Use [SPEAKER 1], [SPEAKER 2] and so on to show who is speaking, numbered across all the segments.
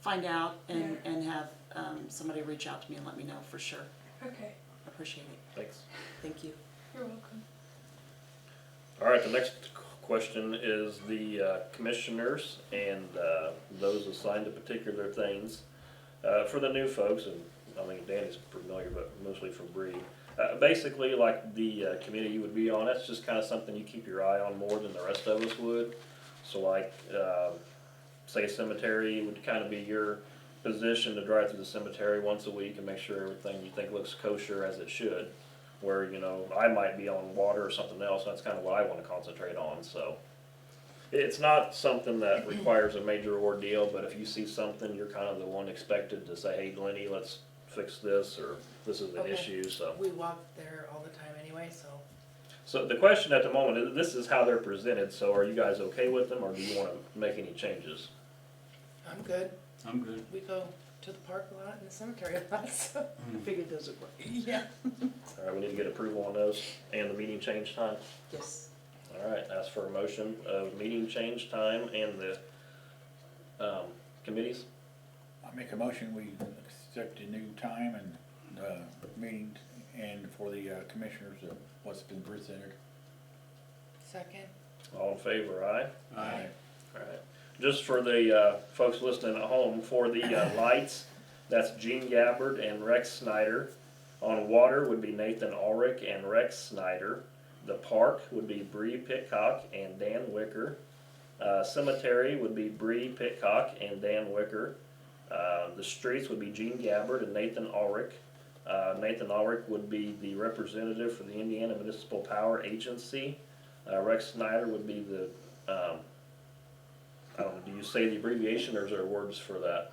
[SPEAKER 1] find out and,
[SPEAKER 2] Yeah.
[SPEAKER 1] and have, um, somebody reach out to me and let me know for sure.
[SPEAKER 2] Okay,
[SPEAKER 1] Appreciate it.
[SPEAKER 3] Thanks.
[SPEAKER 1] Thank you.
[SPEAKER 2] you're welcome.
[SPEAKER 3] All right, the next q- question is the uh, commissioners and uh, those assigned to particular things. Uh, For the new folks, and I think Danny's familiar, but mostly for Bree. uh, Basically, like the uh, committee you would be on, that's just kind of something you keep your eye on more than the rest of us would. So like, uh, say cemetery would kind of be your position to drive through the cemetery once a week and make sure everything you think looks kosher as it should. Where, you know, I might be on water or something else, that's kind of what I want to concentrate on, so. It's not something that requires a major ordeal, but if you see something, you're kind of the one expected to say, hey, Lenny, let's fix this, or this is an
[SPEAKER 4] Okay.
[SPEAKER 3] issue, so.
[SPEAKER 4] We walk there all the time anyway, so
[SPEAKER 3] So the question at the moment, is this is how they're presented, so are you guys okay with them, or do you wanna make any changes?
[SPEAKER 4] I'm good.
[SPEAKER 5] I'm good.
[SPEAKER 4] We go to the park a lot and the cemetery a lot, so.
[SPEAKER 1] I figured those would work.
[SPEAKER 4] Yeah.
[SPEAKER 3] Alright, we need to get approval on those, and the meeting change time.
[SPEAKER 1] Yes.
[SPEAKER 3] Alright, ask for a motion of meeting change time and the, um, committees.
[SPEAKER 6] I make a motion, we accept the new time and, uh, meeting, and for the uh, commissioners of what's been presented.
[SPEAKER 4] Second,
[SPEAKER 3] All in favor, aye?
[SPEAKER 5] Aye.
[SPEAKER 3] Alright, just for the, uh, folks listening at home, for the, uh, lights, that's Gene Gabbard and Rex Snyder. On water would be Nathan Ulrich and Rex Snyder. The park would be Bree Pitcock and Dan Wicker. Uh, cemetery would be Bree Pitcock and Dan Wicker. Uh, the streets would be Gene Gabbard and Nathan Ulrich. Uh, Nathan Ulrich would be the representative for the Indiana Municipal Power Agency. Uh, Rex Snyder would be the, um, I don't know, Oh, do you say the abbreviation or is there words for that?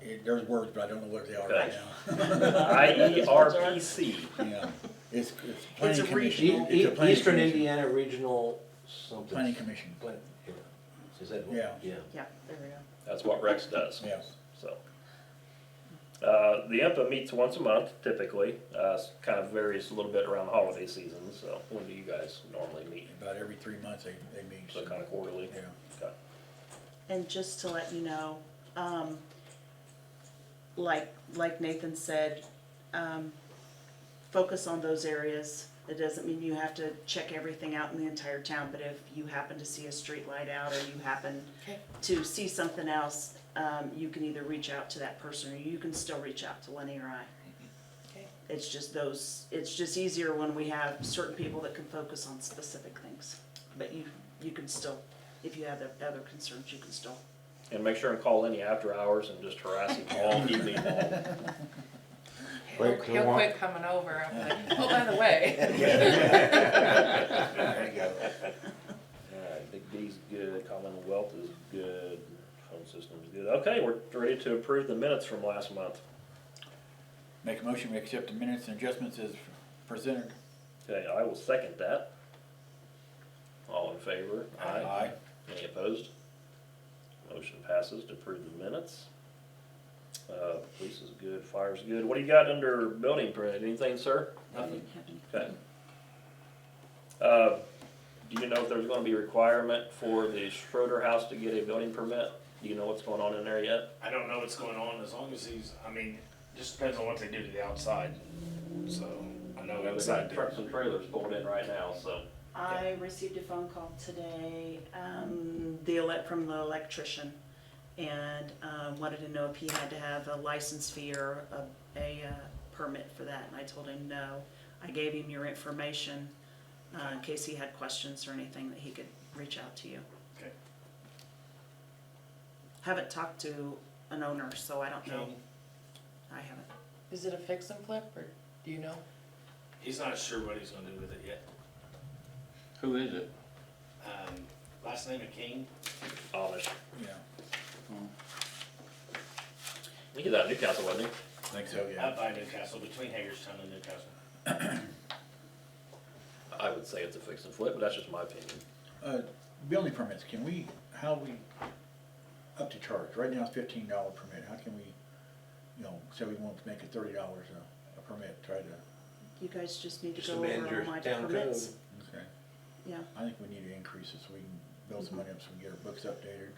[SPEAKER 6] It, there's words, but I don't know what they are right now.
[SPEAKER 3] E IERPC.
[SPEAKER 6] Yeah, it's, it's
[SPEAKER 1] It's a
[SPEAKER 6] planning
[SPEAKER 7] E-
[SPEAKER 6] commission.
[SPEAKER 1] regional-
[SPEAKER 6] It's a
[SPEAKER 7] E-
[SPEAKER 6] planning
[SPEAKER 7] Eastern
[SPEAKER 6] commission.
[SPEAKER 7] Indiana Regional something.
[SPEAKER 6] Planning commission,
[SPEAKER 7] Plan- yeah. Is that what?
[SPEAKER 6] Yeah.
[SPEAKER 7] Yeah.
[SPEAKER 1] Yeah, there we go.
[SPEAKER 3] That's what Rex does.
[SPEAKER 6] yes.
[SPEAKER 3] So, uh, the IMPA meets once a month typically. Uh, s- kind of varies a little bit around the holiday season. So, when do you guys normally meet?
[SPEAKER 6] About every three months they, they meet.
[SPEAKER 3] So, kind of quarterly.
[SPEAKER 6] Yeah.
[SPEAKER 3] Okay.
[SPEAKER 1] And just to let you know, um, like, like Nathan said, um, focus on those areas. It doesn't mean you have to check everything out in the entire town, but if you happen to see a street light out or you happen
[SPEAKER 4] okay,
[SPEAKER 1] to see something else, um, you can either reach out to that person or you can still reach out to Lenny or I.
[SPEAKER 4] okay,
[SPEAKER 1] It's just those, it's just easier when we have certain people that can focus on specific things. But you, you can still, if you have other concerns, you can still.
[SPEAKER 3] And make sure and call any after hours and just harass him all evening long.
[SPEAKER 4] he'll,
[SPEAKER 7] Wait, do you
[SPEAKER 4] he'll
[SPEAKER 7] want-
[SPEAKER 4] quit coming over, I'm like, oh, by the way.
[SPEAKER 6] There you go.
[SPEAKER 3] Alright, Big D's good, Commonwealth is good, phone system's good. Okay, we're ready to approve the minutes from last month.
[SPEAKER 6] Make a motion, we accept the minutes and adjustments as presented.
[SPEAKER 3] Okay, I will second that. All in favor?
[SPEAKER 6] Aye.
[SPEAKER 3] Any opposed? Motion passes to approve the minutes. Uh, police is good, fire's good. What do you got under building permit? Anything, sir? Okay. Uh, do you know if there's gonna be a requirement for the Schroeder House to get a building permit? Do you know what's going on in there yet?
[SPEAKER 8] I don't know what's going on as long as he's. I mean, just depends on what they do to the outside. So I know
[SPEAKER 3] They
[SPEAKER 8] inside.
[SPEAKER 3] got
[SPEAKER 8] they're-
[SPEAKER 3] Trucks and trailers pulled in right now, so.
[SPEAKER 1] I received a phone call today, um, the elec, from the electrician and, uh, wanted to know if he had to have a license fee or a, a uh, permit for that. And I told him no. I gave him your information, uh, in case he had questions or anything that he could reach out to you.
[SPEAKER 8] Okay.
[SPEAKER 1] Haven't talked to an owner, so I don't know.
[SPEAKER 8] No.
[SPEAKER 1] I haven't.
[SPEAKER 4] Is it a fix and flip, or do you know?
[SPEAKER 8] He's not sure what he's going to do with it yet.
[SPEAKER 5] Who is it?
[SPEAKER 8] Um, last name of King.
[SPEAKER 3] Amish.
[SPEAKER 6] Yeah,
[SPEAKER 3] He was out of Newcastle, wasn't he?
[SPEAKER 6] I think so, yeah.
[SPEAKER 8] Out by Newcastle, between Hagerstown and Newcastle.
[SPEAKER 3] I would say it's a fix and flip, but that's just my opinion.
[SPEAKER 6] Uh, building permits, can we, how we, up to charge, right now it's fifteen dollar permit, how can we, you know, say we want to make it thirty dollars a, a permit, try to,
[SPEAKER 1] You guys just need to
[SPEAKER 7] Just
[SPEAKER 1] go
[SPEAKER 7] amend
[SPEAKER 1] over
[SPEAKER 7] your
[SPEAKER 1] all my
[SPEAKER 7] town
[SPEAKER 1] permits.
[SPEAKER 7] code.
[SPEAKER 6] okay.
[SPEAKER 1] Yeah.
[SPEAKER 6] I think we need to increase it so we can build some money up, so we can get our books updated.